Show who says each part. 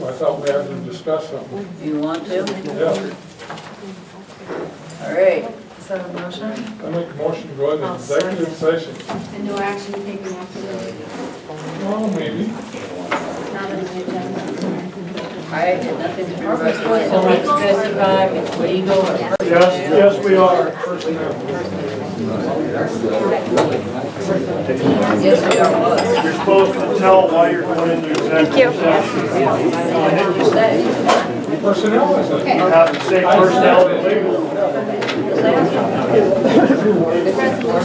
Speaker 1: thought we had to discuss something.
Speaker 2: You want to?
Speaker 1: Yeah,
Speaker 2: All right,
Speaker 3: Is that a motion?
Speaker 1: I make a motion to go ahead and
Speaker 3: I'll second.
Speaker 1: executive session.
Speaker 4: And no action taken after the,
Speaker 1: Well, maybe.
Speaker 4: not on the agenda.
Speaker 2: I had nothing to report. It's justified, it's legal, or
Speaker 1: Yes, yes, we are. Personnel.
Speaker 2: yes, we are was.
Speaker 5: You're supposed to tell why you're going into executive session.
Speaker 2: What did you say?
Speaker 1: Personnel is it?
Speaker 5: You have to say personnel and legal.
Speaker 2: Say it.